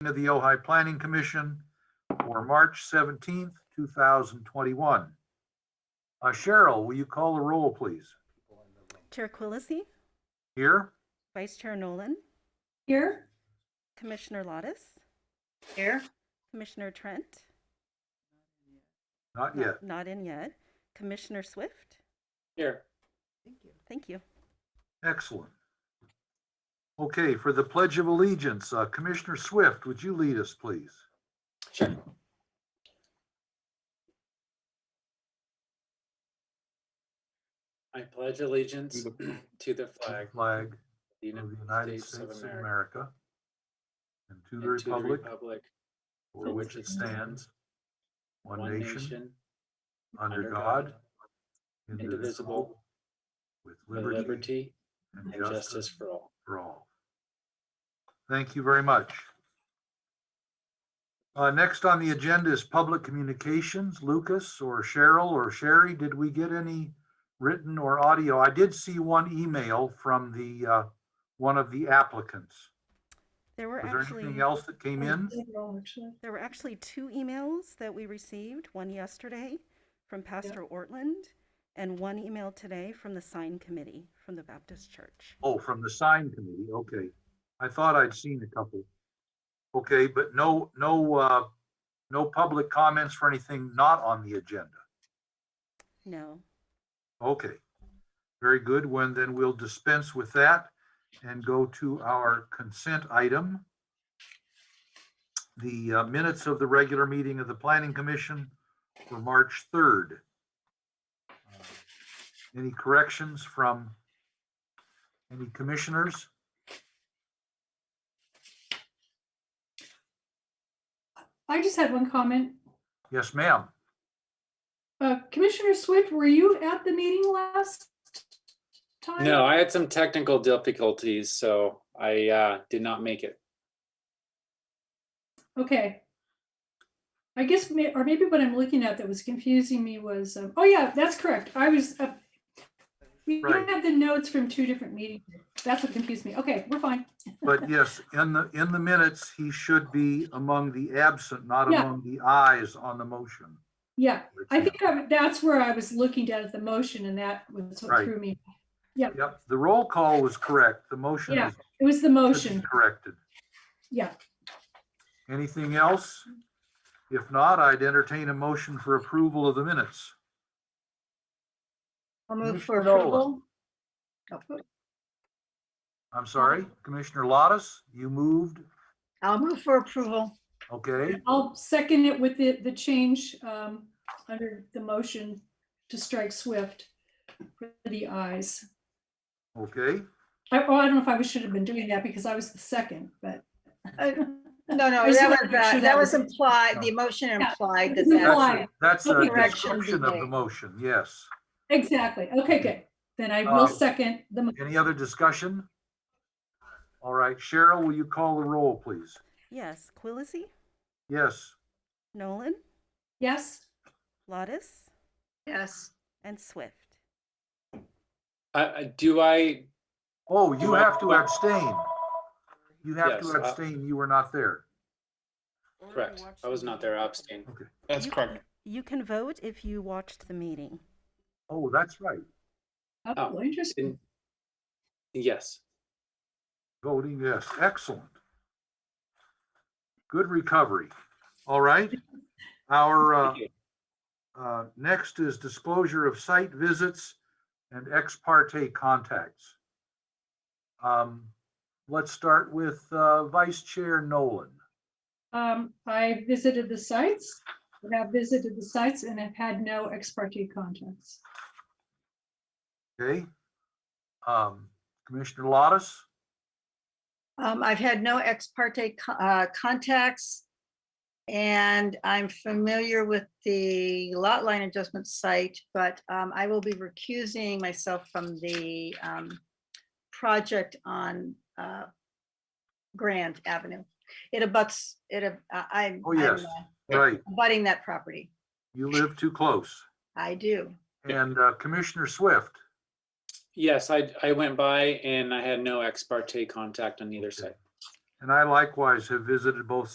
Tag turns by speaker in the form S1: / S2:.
S1: of the Ojai Planning Commission for March 17th, 2021. Uh, Cheryl, will you call the roll, please?
S2: Chair Quillisi,
S1: Here?
S2: Vice Chair Nolan,
S3: Here?
S2: Commissioner Lottis,
S3: Here.
S2: Commissioner Trent,
S1: Not
S2: no-
S1: yet.
S2: not in yet, Commissioner Swift.
S4: Here.
S2: Thank you.
S1: Excellent. Okay, for the Pledge of Allegiance, uh, Commissioner Swift, would you lead us, please?
S4: Sure. I pledge allegiance to the flag of
S1: Flag
S4: the
S1: of the
S4: United States of America
S1: America and to
S4: and
S1: the republic for
S4: for
S1: which
S4: which
S1: it
S4: it stands,
S1: stands, one nation, under
S4: under
S1: God,
S4: God, indivisible,
S1: with
S4: with
S1: liberty
S4: liberty
S1: and
S4: and
S1: justice
S4: justice for all.
S1: for all. Thank you very much. Uh, next on the agenda is public communications. Lucas or Cheryl or Sherry, did we get any written or audio? I did see one email from the, uh, one of the applicants.
S2: There were
S1: Was there
S2: actually,
S1: anything else that came in?
S2: there were actually two emails that we received, one yesterday from Pastor Ortland and one email today from the sign committee from the Baptist Church.
S1: Oh, from the sign committee, okay. I thought I'd seen a couple. Okay, but no, no, uh, no public comments for anything not on the agenda.
S2: No.
S1: Okay, very good. When then we'll dispense with that and go to our consent item. The uh, minutes of the regular meeting of the Planning Commission for March 3rd. Any corrections from any commissioners?
S3: I just had one comment.
S1: Yes, ma'am.
S3: Uh, Commissioner Swift, were you at the meeting last time?
S4: No, I had some technical difficulties, so I uh, did not make it.
S3: Okay. I guess, may- or maybe what I'm looking at that was confusing me was, um, oh yeah, that's correct. I was, uh, we
S1: Right.
S3: had the notes from two different meetings. That's what confused me. Okay, we're fine.
S1: But yes, in the, in the minutes, he should be among the absent, not
S3: Yeah.
S1: among the ayes on the motion.
S3: Yeah, I think I- that's where I was looking down at the motion and that was what
S1: Right.
S3: threw me.
S1: Yep, the roll call was correct. The motion
S3: Yeah,
S1: is
S3: it was the
S1: should be
S3: motion.
S1: Corrected.
S3: Yeah,
S1: Anything else? If not, I'd entertain a motion for approval of the minutes.
S5: I'll move for
S1: Commissioner Nolan.
S5: approval. Oh,
S1: I'm sorry, Commissioner Lottis, you moved,
S5: I'll move for approval.
S1: okay?
S3: I'll second it with the, the change um, under the motion to strike Swift for the eyes.
S1: Okay,
S3: I, oh, I don't know if I should have been doing that because I was the second, but.
S5: Uh, No,
S3: I
S5: no,
S3: just
S5: that
S3: wanted to
S5: was,
S3: make sure
S5: uh,
S3: that
S5: that was
S3: was-
S5: implied, the emotion
S3: Yeah.
S5: implied that
S3: It's
S5: that's,
S3: implied.
S1: that's, that's a
S5: Correction be
S1: description of the
S5: made.
S1: motion, yes.
S3: Exactly. Okay, good. Then I will
S1: Um,
S3: second the, mo-
S1: Any other discussion? All right, Cheryl, will you call the roll, please?
S2: Yes, Quillisi,
S1: Yes,
S2: Nolan,
S3: yes?
S2: Lottis,
S5: yes.
S2: and Swift.
S4: I- I- Do I,
S1: oh, you have to abstain. You have
S4: Yes,
S1: to
S4: uh,
S1: abstain, you were not there.
S4: correct, I was not there, I abstained.
S6: That's
S2: You-
S6: correct.
S2: You can vote if you watched the meeting.
S1: Oh, that's right,
S3: Oh,
S4: Didn't-
S3: interesting.
S4: Yes,
S1: voting yes, excellent. Good recovery. All right, our, uh,
S4: thank you.
S1: Uh, Next is disclosure of site visits and ex parte contacts. Um, Let's start with uh, Vice Chair Nolan.
S3: Um, I visited the sites, I have visited the sites and have had no ex parte contacts.
S1: Okay? Um, Commissioner Lottis,
S5: Um, I've had no ex parte co- uh, contacts. And I'm familiar with the lot line adjustment site, but um, I will be recusing myself from the um, project on uh, Grand Avenue. It abuts, it, ab- I- I'm.
S1: Oh,
S5: I'm,
S1: yes.
S5: uh,
S1: right,
S5: Abutting that property.
S1: you live too close.
S5: I do.
S1: And uh, Commissioner Swift,
S4: Yes, I, I went by and I had no ex parte contact on either side.
S1: and I likewise have visited both